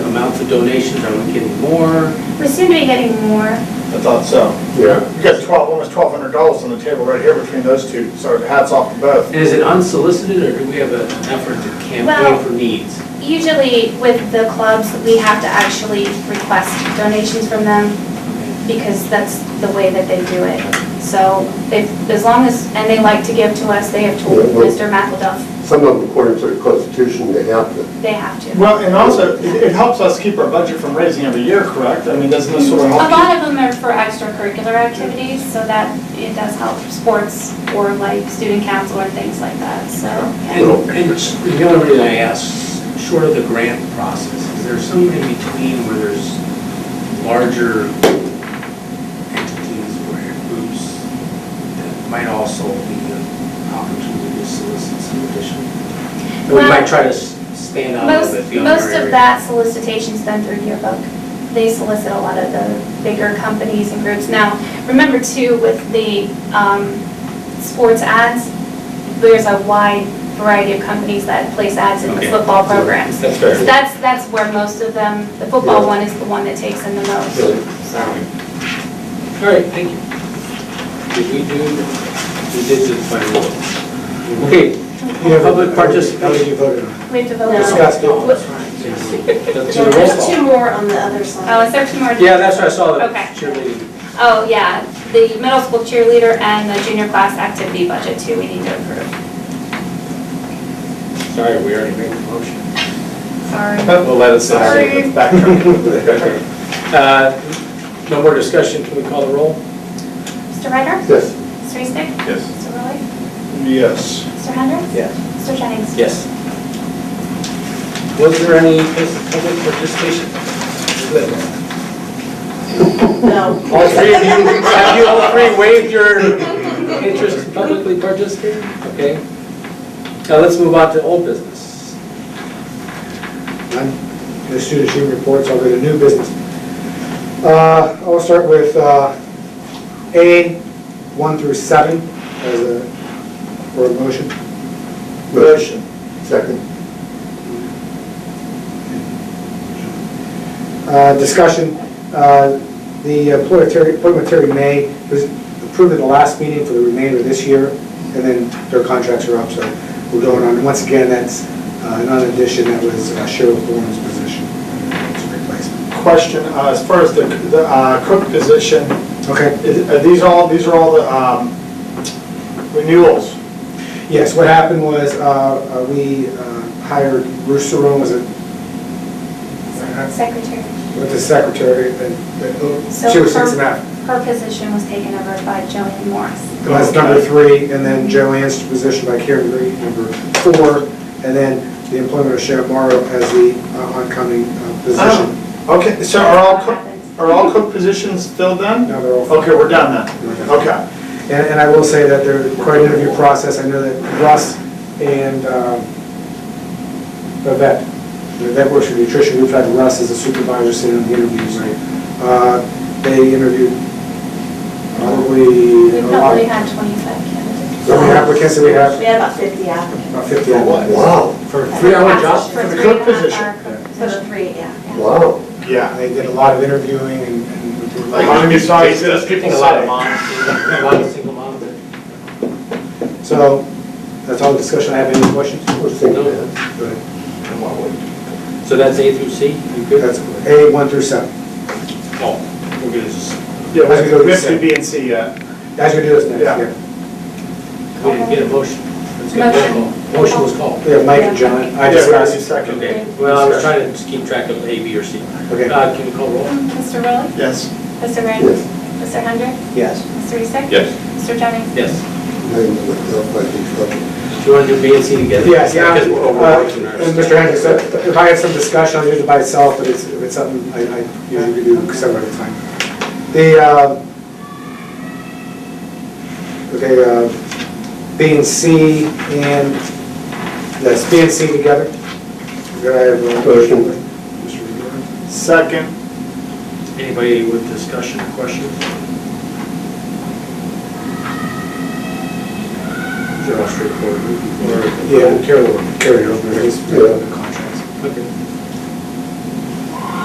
lots of donations, are we getting more? We seem to be getting more. I thought so. Yeah. You got twelve, almost twelve hundred dollars on the table right here between those two, so hats off to both. And is it unsolicited, or do we have an effort to campaign Well- for needs? Usually with the clubs, we have to actually request donations from them because that's the way that they do it. So if, as long as, and they like to give to us, they have told Yeah, well- Mr. McElduff, Some of them, according to the Constitution, they have to. they have to. Well, and also, it it helps us keep our budget from raising every year, correct? I mean, doesn't this sort of A help? you? lot of them are for extracurricular activities, so that it does help sports or like student council or things like that, so. yeah. And, and s- the only reason I ask, short of the grant process, is there some in between where there's larger entities or groups that might also be an opportunity to solicit some additional? And We Well- might try to s- span out a Most, little bit beyond our most of area. that solicitation's done through yearbook. They solicit a lot of the bigger companies and groups. Now, remember too, with the um, sports ads, there's a wide variety of companies that place ads in the Okay. football programs. That's So that's, that's where most of them, the football one is the one that takes in the most. So, All right, thank you. Did we do, we did the final vote. Okay, public participation. We have to vote. No. now. Discussed all. Let's do No, the roll There's call. two more on the other side. Oh, is there two more? Yeah, that's what I saw, the Okay. cheerleading. Oh, yeah, the middle school cheerleader and the junior class activity budget too, we need to approve. Sorry, we already made the motion. Sorry. We'll let it Sorry. Backtrack. Uh, No more discussion, can we call the roll? Mr. Ryder? Yes, Mr. Eastick? Yes. Mr. Rowley? Yes. Mr. Hendricks? Yes. Mr. Jennings? Yes. Was there any public participation? No. All three of you, have you all three waived your interest in publicly participating? Okay. Now let's move on to old business. I'm- As soon as you report, I'll go to new business. Uh, I'll start with uh, A, 1 through 7, as a, for a motion. Motion. second. Uh, Discussion, uh, the appointment Terry- appointment Terry May was approved at the last meeting for the remainder of this year, and then their contracts are up, so we're going on. Once again, that's uh, another addition that was uh, Cheryl Thorne's position. It's a replacement. Question, uh, as far as the, the uh, cook position, Okay? is- are these all, these are all the um, renewals? Yes, what happened was, uh, uh, we uh, hired Bruce Saron, was it, Secretary, with the secretary, and and So she was her- six and a half. her position was taken over by Jillian Morris. And That's number three, and then Joanne's position by Karen Green, number four, and then the employment of Sheriff Morrow as the uh, oncoming uh, position. Okay, so are all, cook- are all cook positions filled then? Now they're all. Okay, we're done then. Okay. And, and I will say that there, quite an interview process, I know that Russ and um, Yvette, Yvette works for nutrition, we've had Russ as a supervisor sitting in the interviews, right? Uh, They interviewed probably, We a lot, probably had 25 candidates. how many applicants that we have? We had about 50 applicants. About fifty. Wow, For a Three-hour job? For For the three cook and a half position. hour cook So the position. three, yeah. wow. Yeah. They did a lot of interviewing and. and we were Like, lucky. I'm sorry, it's I think people a lot say. of moms, a lot of single moms. that- So, that's all the discussion, I have any questions? We're thinking that. Go ahead. So that's A through C, you good? That's A, one through seven. Oh, we're gonna just, Yeah, we have to- we have to B and C yet. As we do this next, Yeah. yeah. we didn't get a motion. Let's get a roll call. Motion was called. We have Mike and John, I Yeah, we discussed. already seconded. Okay, well, I was trying to just keep track of A, B, or C. Okay. Uh, Can we call roll? Mr. Rowley? Yes. Mr. Grant? Yes. Mr. Hendricks? Yes. Mr. Eastick? Yes. Mr. Jennings? Yes. Maybe that might be trouble. Do you want to do B and C together? Yes, yeah. Because we're overworking Uh, and ours. Mr. Hendricks, uh, if I have some discussion, I'll do it by itself, but it's, if it's something I, I usually do several at a time. The, uh, okay, uh, B and C and, that's B and C together. Could I have a Motion. Mr. Rivera? Second. Anybody with discussion or questions? They're all straightforward. Yeah, we'll carry, carry over, it's, Yeah. the contracts. Okay.